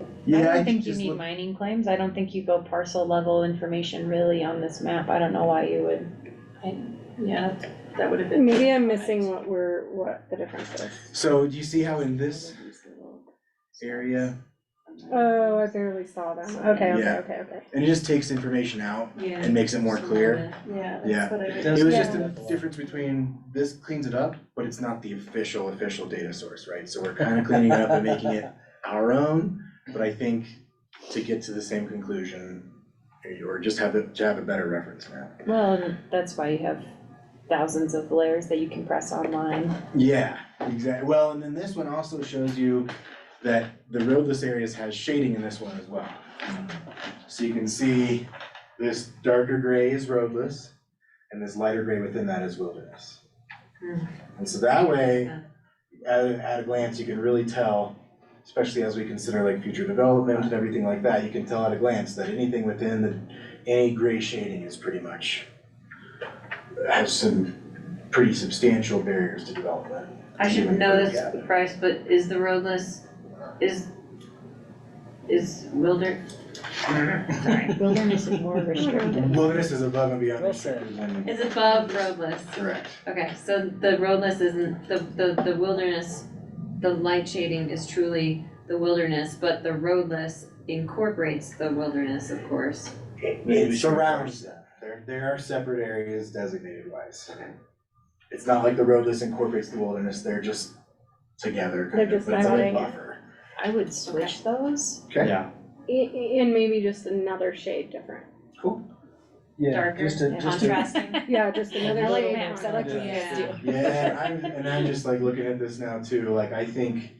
I Yeah, don't think you just need look- mining claims, I don't think you go parcel level information really on this map, I don't know why you would. I, yeah, that would have been. Maybe I'm missing what we're, what the difference is. So do you see how in this area, uh, Oh, I barely saw them. Okay, okay, Yeah. okay, okay. and it just takes information out Yeah. and makes it more clear? Yeah, Yeah. that's what I would. It was Yeah. just the difference between, this cleans it up, but it's not the official, official data source, right? So we're kind of cleaning it up and making it our own, but I think to get to the same conclusion, or just have it, to have a better reference map. Well, and that's why you have thousands of layers that you can press online. Yeah, exactly. Well, and then this one also shows you that the roadless areas has shading in this one as well. So you can see this darker gray is roadless, and this lighter gray within that is wilderness. Hmm. And so that way, at, at a glance, you can really tell, especially as we consider like future development and everything like that, you can tell at a glance that anything within the, any gray shading is pretty much, has some pretty substantial barriers to development. I should Even know for- this, yeah. Bryce, but is the road list, is, is Wilder? Sorry, Wilderness is more restricted. Wilderness is above and beyond. Well restricted land. is above road list. Correct. Okay, so the road list isn't, the, the, the wilderness, the light shading is truly the wilderness, but the road list incorporates the wilderness, of course. It surrounds them. There, there are separate areas designated wise. It's not like the roadless incorporates the wilderness, they're just together, kind They're of, just but it's like a dividing it. buffer. I would switch those. Okay. Yeah, I- I- And maybe just another shade different. yeah, Darker, just to, just to. Contrasting. Yeah, just another I shade. like different. like what you guys do. Yeah, and I'm, and I'm just like looking at this now too, like I think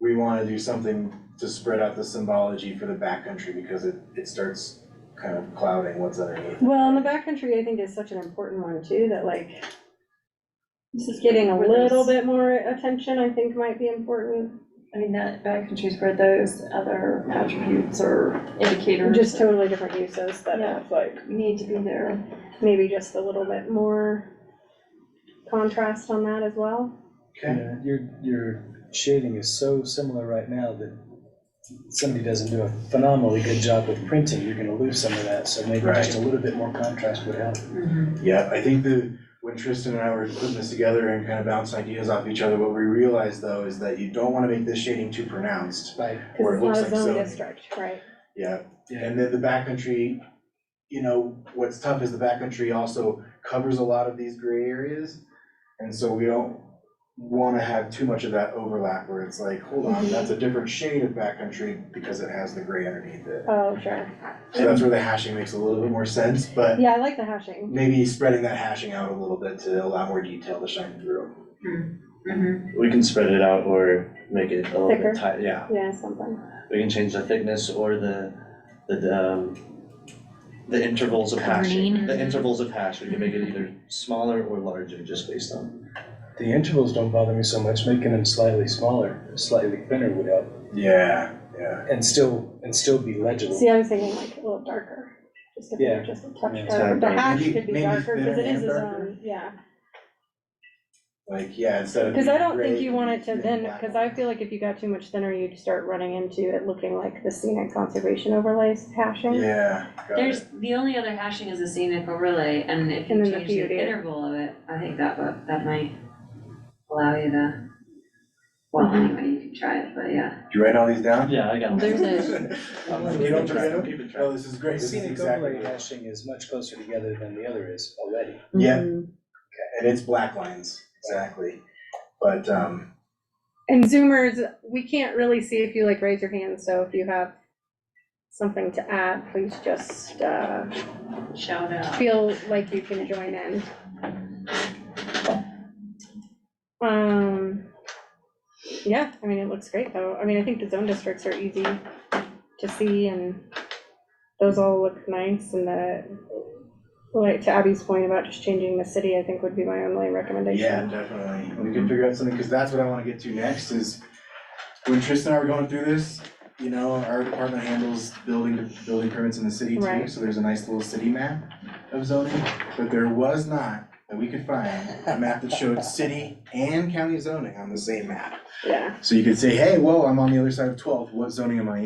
we wanna do something to spread out the symbology for the backcountry because it, it starts kind of clouding what's underneath. Well, and the backcountry, I think, is such an important one too, that like, this is getting a little bit more attention, I think might be important. I mean, that backcountry's where those other attributes or indicators Just totally different uses that have like, need to be there. maybe just a little bit more contrast on that as well. Okay, Yeah, Your, your shading is so similar right now that somebody doesn't do a phenomenally good job with printing, you're gonna lose some of that, so maybe just a little bit more contrast would help. Mm-hmm. yeah, I think the, when Tristan and I were putting this together and kind of bouncing ideas off each other, what we realized though is that you don't wanna make this shading too pronounced. Right. Or Cause it looks it's not a like zone zoning. district, right? Yeah, and then the backcountry, you know, what's tough is the backcountry also covers a lot of these gray areas. And so we don't wanna have too much of that overlap where it's like, hold on, that's a different shade of backcountry because it has the gray underneath it. Oh, sure. So that's where the hashing makes a little bit more sense, but Yeah, I like the hashing. maybe spreading that hashing out a little bit to allow more detail to shine through. Mm-hmm. Mhm. We can spread it out or make it a little Thicker. bit tight, yeah. Yeah, something. We can change the thickness or the, the, um, the intervals of Kerning. hashing. The intervals of hash, we can make it either smaller or larger, just based on. The intervals don't bother me so much, making them slightly smaller, slightly thinner would help, Yeah, yeah. and still, and still be legible. See, I was thinking like a little darker, just if Yeah. they're just a touch Yeah. darker. The Maybe- hash could be maybe darker, cause thinner it is and a darker. zone, yeah. Like, yeah, instead of. Cause I don't gray, think you want it to thin then, black. cause I feel like if you got too much thinner, you'd start running into it looking like the scenic conservation overlays hashing. Yeah, got it. There's, the only other hashing is a scenic overlay, and if you And then the change the PUD. interval of it, I think that, would- that might allow you to, well, Mm-hmm. anyway, you can try it, but yeah. You writing all these down? Yeah, I got There's a- You don't forget them? Keep it track. Oh, this is great, this is Scenic exactly. overlay what- hashing is much closer together than the other is already. Yeah. mm. And it's black lines, exactly. But, um, And zoomers, we can't really see if you like raise your hand, so if you have something to add, please just, uh, Shout out. feel like you can join in. Um, yeah, I mean, it looks great though. I mean, I think the zone districts are easy to see and those all look nice and the, like to Abby's point about just changing the city, I think would be my only yeah, recommendation. definitely. Mm-hmm. We can figure out something, because that's what I wanna get to next is when Tristan and I were going through this, you know, our department handles building, building permits in the city too, Right. so there's a nice little city map of zoning, but there was not, that we could find, a map that showed city and county zoning on the same map. Yeah. So you could say, hey, whoa, I'm on the other side of twelve, what zoning am I in?